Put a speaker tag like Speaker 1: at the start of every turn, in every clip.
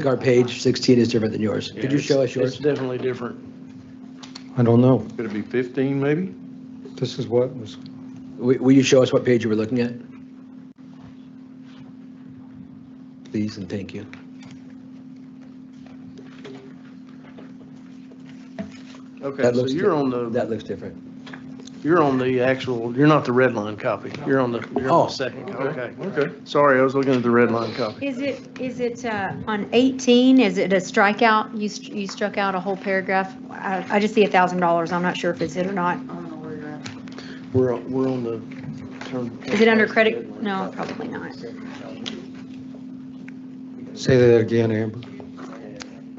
Speaker 1: think our page 16 is different than yours. Could you show us
Speaker 2: It's
Speaker 1: yours?
Speaker 2: definitely different.
Speaker 3: I don't know.
Speaker 2: Could it be 15 maybe?
Speaker 3: This is what was,
Speaker 1: Will will you show us what page you were looking at? Please and thank you.
Speaker 2: Okay,
Speaker 1: That
Speaker 2: so
Speaker 1: looks
Speaker 2: you're
Speaker 1: di-
Speaker 2: on the,
Speaker 1: That looks different.
Speaker 2: you're on the actual, you're not the red line copy. You're on the, you're on
Speaker 1: Oh.
Speaker 2: the second, co- okay.
Speaker 4: Okay.
Speaker 2: Sorry, I was looking at the red line copy.
Speaker 5: Is it, is it uh, on 18, is it a strikeout? You st- you struck out a whole paragraph? I I just see $1,000, I'm not sure if it's it or not.
Speaker 2: We're, on- we're on the.
Speaker 5: Is it under credit? No, probably not.
Speaker 3: say that again, Amber.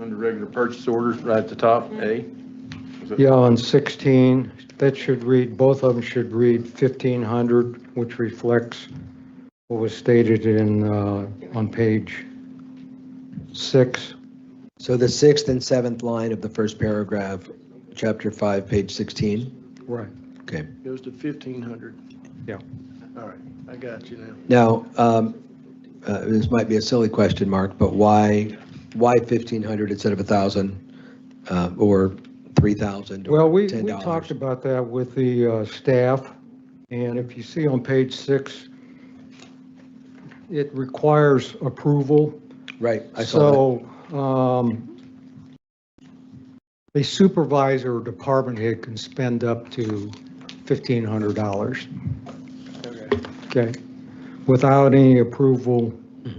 Speaker 4: Under regular purchase orders, right at the top, A.
Speaker 5: Mm-hmm.
Speaker 4: Is it-
Speaker 3: Yeah, on 16, that should read, both of them should read 1,500, which reflects what was stated in, uh, on page six.
Speaker 1: So the sixth and seventh line of the first paragraph, chapter five, page 16.
Speaker 3: Right.
Speaker 1: Okay.
Speaker 2: Goes to 1,500.
Speaker 3: Yeah.
Speaker 2: All right, I got you now.
Speaker 1: Now, um, uh, this might be a silly question, Mark, but why, why 1,500 instead of 1,000 uh, or 3,000 or $10?
Speaker 3: Well, we, we talked about that with the uh, staff, and if you see on page six, it requires approval
Speaker 1: Right, I saw
Speaker 3: So, um, a supervisor or department head can spend up to fifteen hundred dollars, okay? Without any approval
Speaker 1: that.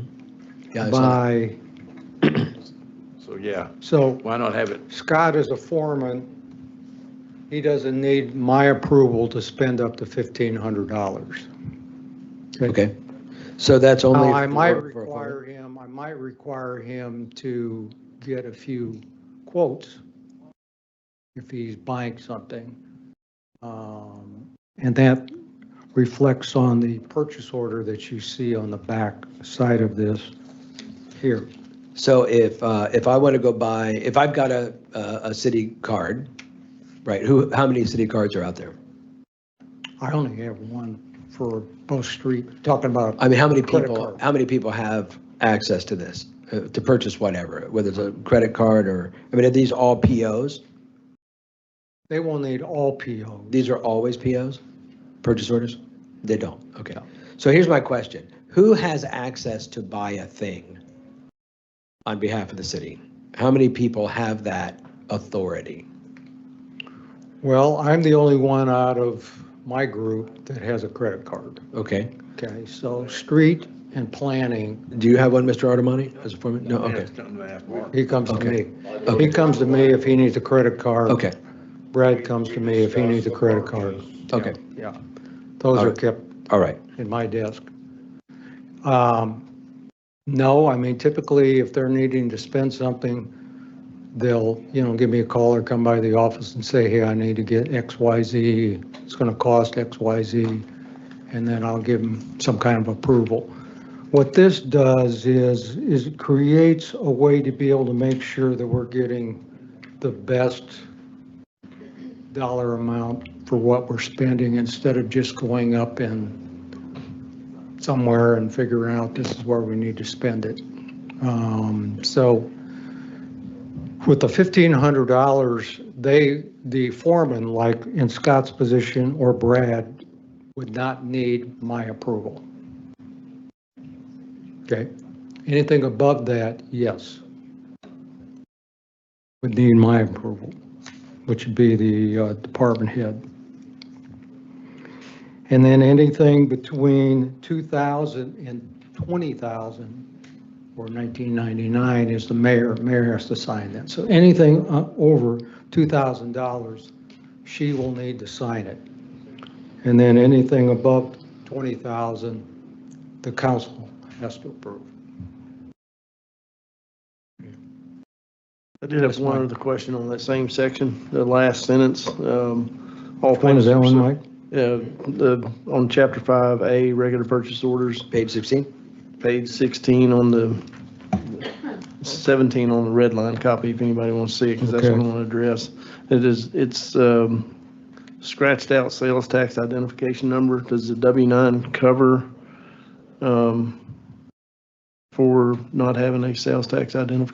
Speaker 1: Yeah, I saw that.
Speaker 3: by,
Speaker 4: So, yeah,
Speaker 3: so
Speaker 4: why not have it?
Speaker 3: Scott is a foreman. He doesn't need my approval to spend up to fifteen hundred dollars.
Speaker 1: Okay. So that's only.
Speaker 3: Now, I might
Speaker 1: Oh, for- for-
Speaker 3: require him, I might require him to get a few quotes if he's buying something. Um, And that reflects on the purchase order that you see on the back side of this here.
Speaker 1: So if, uh, if I want to go buy, if I've got a, a a city card, right, who, how many city cards are out there?
Speaker 3: I only have one for both street, talking about,
Speaker 1: I mean, how many
Speaker 3: Credit
Speaker 1: people,
Speaker 3: card.
Speaker 1: how many people have access to this, uh, to purchase whatever, whether it's a credit card or, I mean, are these all POs?
Speaker 3: they will need all POs.
Speaker 1: These are always POs, purchase orders? They don't, okay. So here's my question. Who has access to buy a thing on behalf of the city? How many people have that authority?
Speaker 3: Well, I'm the only one out of my group that has a credit card.
Speaker 1: Okay.
Speaker 3: Okay, so street and planning
Speaker 1: Do you have one, Mr. Artemani, as a foreman? No,
Speaker 4: Yeah,
Speaker 1: okay,
Speaker 4: it's coming to half mark.
Speaker 3: He comes to
Speaker 1: Okay.
Speaker 3: me. He comes to me if he needs a credit card.
Speaker 1: okay,
Speaker 3: Brad comes to me if he needs a credit card.
Speaker 1: okay,
Speaker 3: Yeah. Those are
Speaker 1: Alright.
Speaker 3: kept
Speaker 1: all right.
Speaker 3: in my desk. Um, No, I mean typically if they're needing to spend something, they'll, you know, give me a call or come by the office and say, hey, I need to get X, Y, Z. It's going to cost X, Y, Z. And then I'll give them some kind of approval. What this does is, is it creates a way to be able to make sure that we're getting the best dollar amount for what we're spending instead of just going up and somewhere and figuring out this is where we need to spend it. Um, So with the fifteen hundred dollars, they, the foreman, like in Scott's position or Brad, would not need my approval. Okay, anything above that, yes. Would need my approval, which would be the uh, department head. And then anything between 2,000 and 20,000 or 1999 is the mayor, mayor has to sign that. So anything uh, over $2,000, she will need to sign it. And then anything above 20,000, the council has to approve.
Speaker 2: I did have one other question on that same section, the last sentence. um, all
Speaker 3: When
Speaker 2: things
Speaker 3: is that one,
Speaker 2: pursuant-
Speaker 3: Mike?
Speaker 2: Yeah, Uh, the, on chapter five, A, regular purchase orders,
Speaker 1: Page 16?
Speaker 2: page sixteen on the, seventeen on the red line copy, if anybody wants to see it, because that's what I
Speaker 3: Okay.
Speaker 2: want to address. It is, it's, um, scratched out sales tax identification number. Does the W nine cover, um, for not having a sales tax identification